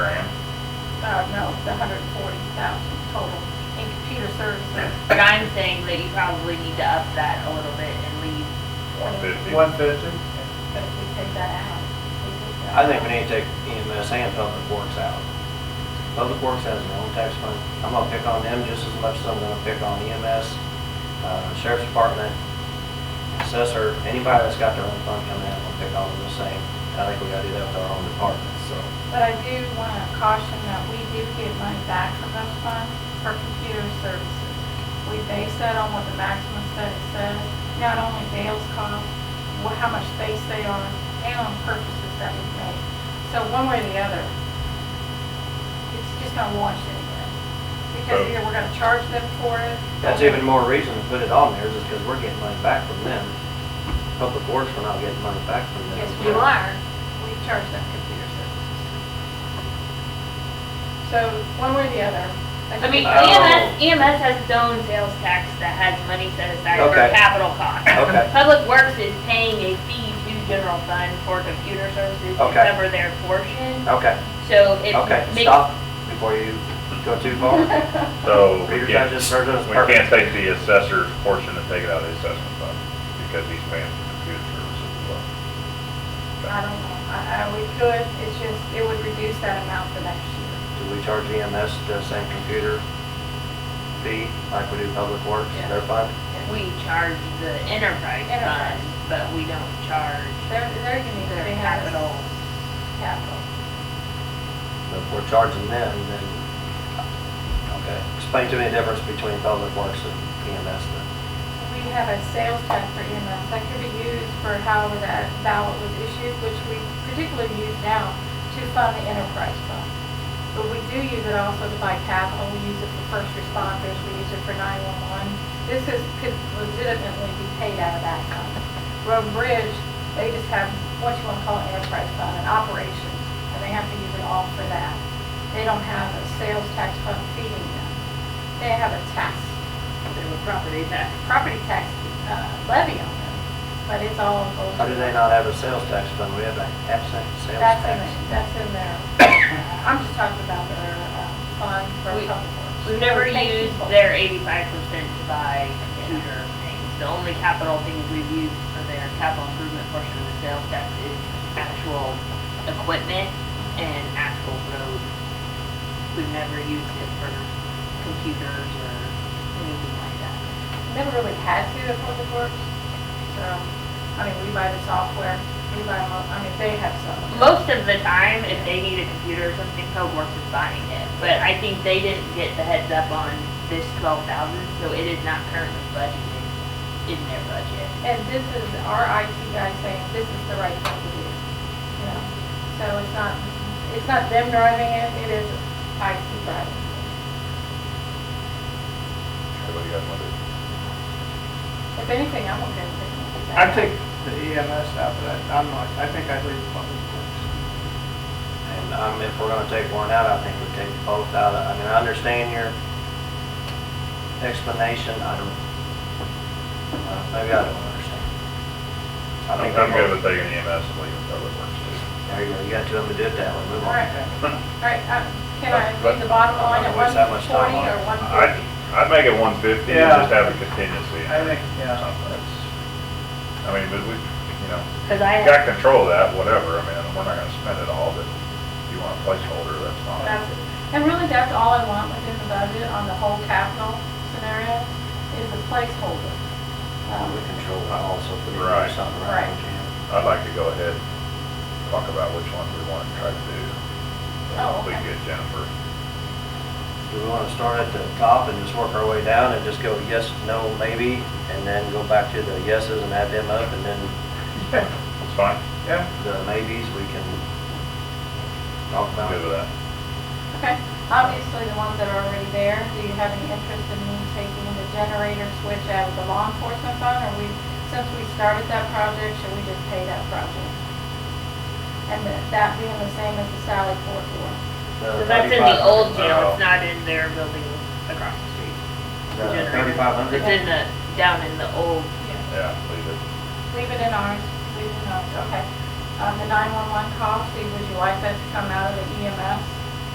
close to hundred and forty thousand total in computer services. But I'm saying that you probably need to up that a little bit and leave. One fifty. One fifty? But if we take that out. we take that I think out. we need to take EMS and Public Works out. Public Works has their own tax fund. I'm gonna pick on them just as much as I'm gonna pick on EMS, uh, Sheriff's Department, Assessor, anybody that's got their own fund coming in, I'm gonna pick on them the same. I think we gotta do that with our own departments, so. But I do want to caution that we do get money back from those funds for computer services. We base that on what the maximum study says, not only Dale's cost, wha- how much space they are, and on purchases that we make. So one way or the other, it's just not launched anywhere. Because So- either we're going to charge them for it. That's even more reason to put it on there, is because we're getting money back from them. Public Works, we're not getting money back from them. Yes, we are. we charge them computer services. So one way or the other. I mean, E Oh. EMS, EMS has its own sales tax that has money set aside for Okay. capital costs. Okay. Public Works is paying a fee to general fund for computer services to Okay. cover their portion, Okay, so it okay, makes. stop before you go too far. So we Peter's not can't, just serving us we perfect. can't take the assessor's portion and take it out of the assessment fund because he's paying for computer services as well. I don't know, I, Um, I, we could, it's just, it would reduce that amount for next year. Do we charge EMS the same computer fee like we do public works, Yeah. their fund? We charge the enterprise Enterprise. fund, but we don't charge They're, they're gonna need, their they have capital. capital. But if we're charging them, then, okay. Explain to me the difference between public works and EMS then. We have a sales tax for EMS, that could be used for however that ballot was issued, which we particularly use now to fund the enterprise fund. But we do use it also to buy capital, we use it for first responders, we use it for 911. This is, could legitimately be paid out of that fund. Road and Bridge, they just have what you want to call an enterprise fund, an operations, and they have to use it all for that. They don't have a sales tax fund feeding them. They have a tax Their property tax. property tax uh, levy on them, but it's all goes. How do they not have a sales tax fund? We have a absent sales That's in, tax. the- that's in their, I'm just talking about their uh, fund for We- public works. We've never They pay used people. their eighty-five percent to buy computer things. The only capital things we've used for their capital improvement portion of the sales tax is actual equipment and actual roads. We've never used it for computers or anything like that. Never really had to at public works, so, I mean, we buy the software, we buy, mo- I mean, they have some. of it. Most of the time, if they need a computer or something, Code Works is buying it. But I think they didn't get the heads up on this twelve thousand, so it is not currently budgeted in their budget. And this is our IT guy saying, this is the right thing to do, you know? So it's not, it's not them driving it, it is IT driving it. So what do you guys want to do? If anything, I'm okay with it. I take the EMS out, but I- I'm not, I think I'd leave public works. And, um, if we're gonna take one out, I think we take both out. I mean, I understand your explanation. I don't, uh, maybe I don't understand. I I'm think I'm we're- good with taking EMS and leaving public works too. There you go. You got two of them to do it that way. Move All on. right, all right, uh, can I But- leave the bottom line at but- one Waste that much time forty on it. or one I, fifty? I'd make it one fifty and Yeah. just have a contingency. in I there think, or yeah, something. that's, I mean, but we, you know, Cause I. we got control of that, whatever. I mean, we're not gonna spend it all, but if you want a placeholder, that's fine. That's, and really, that's all I want within the budget on the whole capital scenario is a placeholder. Um, We control that also, if we do Right. something Right. right, we can. I'd like to go ahead and talk about which ones we want to try to do. Oh, We okay. get Jennifer. Do we want to start at the top and just work our way down and just go yes, no, maybe, and then go back to the yeses and add them up, and then It's fine. yeah. the maybes, we can talk I'm about? good with that. Okay, obviously, the ones that are already there, do you have any interest in me taking the generator switch out of the law enforcement fund? Or we, since we started that project, should we just pay that project? And that- that being the same as the Sally Port Door? So that's in the old jail, Oh. it's not in their building across the street. generator. Thirty-five hundred? It's in the, down in the old, Yeah, leave it. Leave it in ours, leave it in ours, okay. Um, the nine-one-one call, Steve, would you like that to come out of the EMS?